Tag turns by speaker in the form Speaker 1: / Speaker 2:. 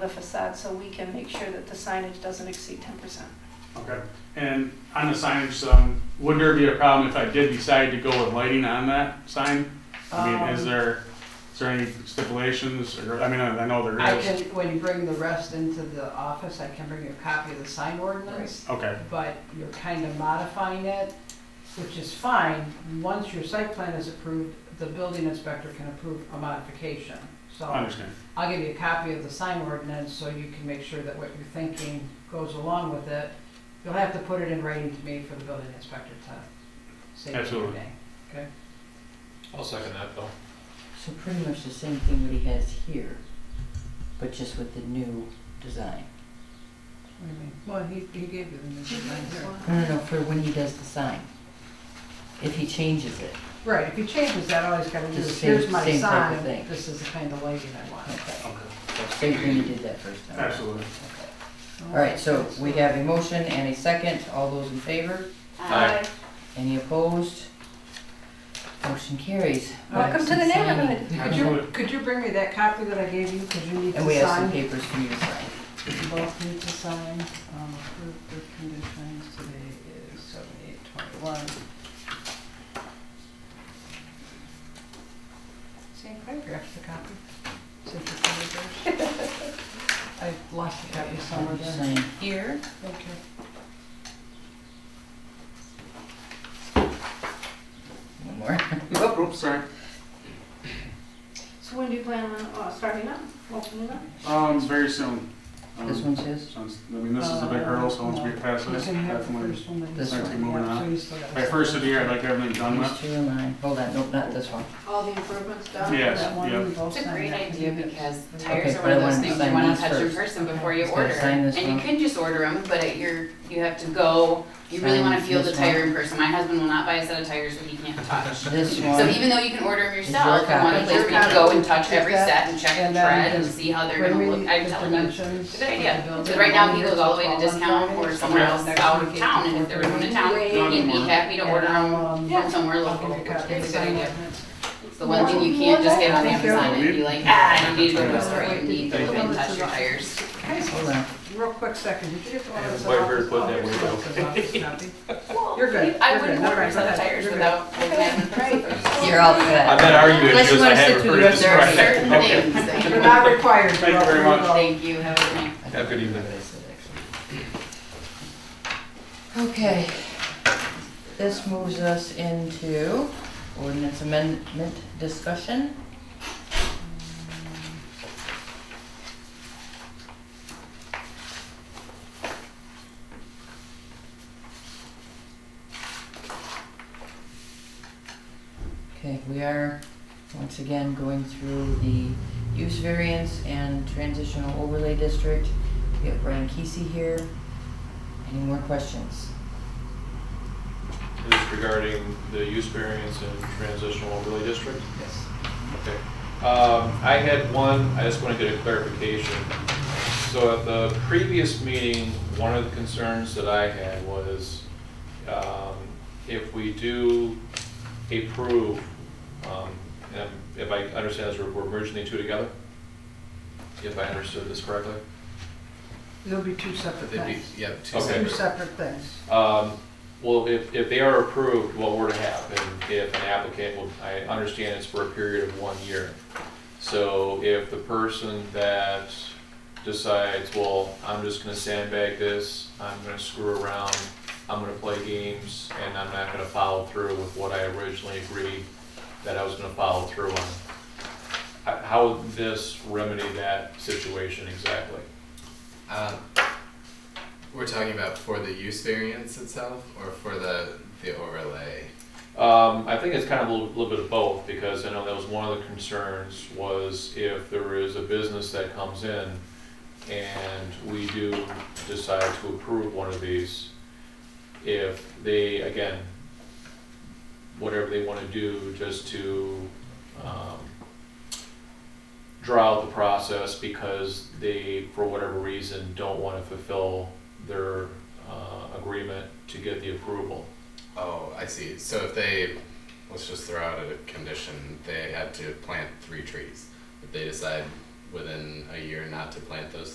Speaker 1: the facade, so we can make sure that the signage doesn't exceed ten percent.
Speaker 2: Okay, and on the signage, um, would there be a problem if I did decide to go with lighting on that sign? I mean, is
Speaker 3: Um,
Speaker 2: there, is there any stipulations, or, I mean, I I know there
Speaker 3: I
Speaker 2: is.
Speaker 3: can, when you bring the rest into the office, I can bring you a copy of the sign ordinance,
Speaker 2: Okay,
Speaker 3: but you're kind of modifying it, which is fine. Once your site plan is approved, the building inspector can approve a modification.
Speaker 2: I
Speaker 3: So
Speaker 2: understand.
Speaker 3: I'll give you a copy of the sign ordinance so you can make sure that what you're thinking goes along with it. You'll have to put it in writing to me for the building inspector to say your
Speaker 2: Absolutely.
Speaker 3: name.
Speaker 4: I'll second that though.
Speaker 5: So pretty much the same thing what he has here, but just with the new design.
Speaker 3: What do you mean? Well, he, he gave you the new design here.
Speaker 5: No, no, no, for when he does the sign. If he changes it,
Speaker 3: Right, if he changes that, all he's gotta do
Speaker 5: Just
Speaker 3: is,
Speaker 5: same-
Speaker 3: here's my
Speaker 5: same type of
Speaker 3: sign,
Speaker 5: thing.
Speaker 3: this is the kind of lighting I want.
Speaker 5: okay.
Speaker 2: Okay,
Speaker 5: Same thing he did that first time.
Speaker 2: Absolutely.
Speaker 5: Okay. All right, so we have a motion and a second. All those in favor?
Speaker 4: Aye.
Speaker 5: Any opposed? Motion carries.
Speaker 1: Welcome to the
Speaker 5: That's insane.
Speaker 1: neighborhood.
Speaker 3: Could you, could you bring me that copy that I gave you, because you need
Speaker 5: And we
Speaker 3: to
Speaker 5: have some
Speaker 3: sign,
Speaker 5: papers for you to sign.
Speaker 3: you both need to sign, um, approved with conditions, today is seven eight twenty-one. Same paragraph, the copy, since you're covered there. I lost the copy somewhere there.
Speaker 5: Sign here.
Speaker 3: Okay.
Speaker 5: One more.
Speaker 4: Oh, oops, sorry.
Speaker 1: So when do you plan on uh, starting up, opening up?
Speaker 2: Um, very soon. Um,
Speaker 5: This one's his.
Speaker 2: sounds- I mean, this is a big hurdle, so once we pass
Speaker 3: You
Speaker 2: this,
Speaker 3: Uh, can have the
Speaker 2: definitely,
Speaker 3: first one. then
Speaker 5: This
Speaker 3: you can
Speaker 5: one.
Speaker 3: have-
Speaker 2: Moving on.
Speaker 3: so you still got
Speaker 2: by
Speaker 3: the
Speaker 2: first of the year, I'd like everything done
Speaker 5: These
Speaker 2: with.
Speaker 5: two and mine. Hold on, nope, not this one.
Speaker 1: All the improvements done?
Speaker 2: Yes,
Speaker 3: That one
Speaker 2: yeah.
Speaker 3: we both
Speaker 6: It's a
Speaker 3: signed
Speaker 6: great
Speaker 3: that
Speaker 6: idea
Speaker 3: we did.
Speaker 6: because
Speaker 5: Okay,
Speaker 6: tires are
Speaker 5: but I
Speaker 6: one of those
Speaker 5: wanna
Speaker 6: things
Speaker 5: sign
Speaker 6: you wanna
Speaker 5: these
Speaker 6: touch in
Speaker 5: first.
Speaker 6: person before you
Speaker 5: Just gotta
Speaker 6: order.
Speaker 5: sign this
Speaker 6: And
Speaker 5: one.
Speaker 6: you could just order them, but it- you're, you have to go, you really
Speaker 5: Sign
Speaker 6: wanna feel the
Speaker 5: this one.
Speaker 6: tire in person. My husband will not buy a set of tires that he can't touch.
Speaker 5: This one.
Speaker 6: So even though you can order them
Speaker 5: Is your
Speaker 6: yourself, you want a
Speaker 5: copy.
Speaker 6: place where you can go and touch every
Speaker 3: Is that-
Speaker 6: set and check
Speaker 3: and
Speaker 6: the
Speaker 3: then
Speaker 6: tread and
Speaker 3: just
Speaker 6: see how they're
Speaker 3: Bring
Speaker 6: gonna
Speaker 3: me
Speaker 6: look. I'm
Speaker 3: the
Speaker 6: telling you,
Speaker 3: dimensions
Speaker 6: it's
Speaker 3: of
Speaker 6: a good
Speaker 3: the
Speaker 6: idea. Because
Speaker 3: building.
Speaker 6: right now he
Speaker 3: Here's
Speaker 6: goes all the way to
Speaker 3: twelve on
Speaker 6: discount
Speaker 3: Friday,
Speaker 6: or
Speaker 3: so
Speaker 6: somewhere
Speaker 3: now
Speaker 6: else
Speaker 3: next
Speaker 6: out
Speaker 3: week
Speaker 6: of
Speaker 3: it's
Speaker 6: town. And if there was one in town,
Speaker 2: Not
Speaker 6: he'd be
Speaker 2: anymore.
Speaker 6: happy to order
Speaker 3: And,
Speaker 6: them
Speaker 3: um,
Speaker 6: from somewhere
Speaker 3: I'll give
Speaker 6: local.
Speaker 3: you a copy
Speaker 6: It's
Speaker 3: of the sign.
Speaker 6: the one thing you can't just get on
Speaker 3: Thank you.
Speaker 6: Amazon and be like, ah, I don't need to go to a store. You need to go
Speaker 3: Thank
Speaker 6: and
Speaker 3: you.
Speaker 6: touch your tires.
Speaker 5: Hold on.
Speaker 3: Real quick second, did you get the one
Speaker 4: Yeah,
Speaker 3: that's
Speaker 4: the white bird
Speaker 3: office?
Speaker 4: put
Speaker 3: Oh,
Speaker 4: that
Speaker 3: here's the
Speaker 4: way down.
Speaker 3: office office copy. You're good.
Speaker 6: I
Speaker 3: You're
Speaker 6: wouldn't
Speaker 3: good.
Speaker 6: order a
Speaker 3: Never
Speaker 6: set of
Speaker 3: mind.
Speaker 6: tires
Speaker 3: You're good.
Speaker 6: without having tires.
Speaker 5: You're all
Speaker 4: I've
Speaker 5: set.
Speaker 4: been arguing
Speaker 5: Unless you
Speaker 4: because I
Speaker 5: wanna sit
Speaker 4: haven't
Speaker 5: through
Speaker 4: heard
Speaker 5: the
Speaker 4: this
Speaker 5: rest
Speaker 6: There are
Speaker 5: Right.
Speaker 6: certain
Speaker 4: correctly. Okay.
Speaker 6: things that
Speaker 3: You're
Speaker 6: you,
Speaker 3: not required.
Speaker 2: Thank you
Speaker 3: Rob.
Speaker 2: very much.
Speaker 6: thank you, have a good night.
Speaker 5: I
Speaker 4: Have a good
Speaker 5: think
Speaker 4: evening.
Speaker 5: I said actually. Okay. This moves us into ordinance amendment discussion. Okay, we are once again going through the use variance and transitional overlay district. We have Brian Kesey here. Any more questions?
Speaker 4: This is regarding the use variance and transitional overlay district.
Speaker 5: Yes.
Speaker 4: Okay. Um, I had one, I just want to get a clarification. So at the previous meeting, one of the concerns that I had was um, if we do approve, um, and if I understand this, we're we're merging the two together? If I understood this correctly?
Speaker 3: There'll be two separate
Speaker 7: They'd be,
Speaker 3: things.
Speaker 7: yeah, two
Speaker 4: Okay.
Speaker 3: Two
Speaker 7: separate.
Speaker 3: separate things.
Speaker 4: Um, Well, if, if they are approved, what were to happen if an applicant, will- I understand it's for a period of one year. So if the person that decides, well, I'm just gonna sandbag this, I'm gonna screw around, I'm gonna play games, and I'm not gonna follow through with what I originally agreed that I was gonna follow through on. How- How would this remedy that situation exactly?
Speaker 7: Um, we're talking about for the use variance itself or for the, the overlay?
Speaker 4: Um, I think it's kind of a little, little bit of both, because I know that was one of the concerns, was if there is a business that comes in and we do decide to approve one of these, if they, again, whatever they want to do, just to, um, draw out the process because they, for whatever reason, don't want to fulfill their, uh, agreement to get the approval.
Speaker 7: Oh, I see. So if they, let's just throw out a condition, they had to plant three trees. If they decide within a year not to plant those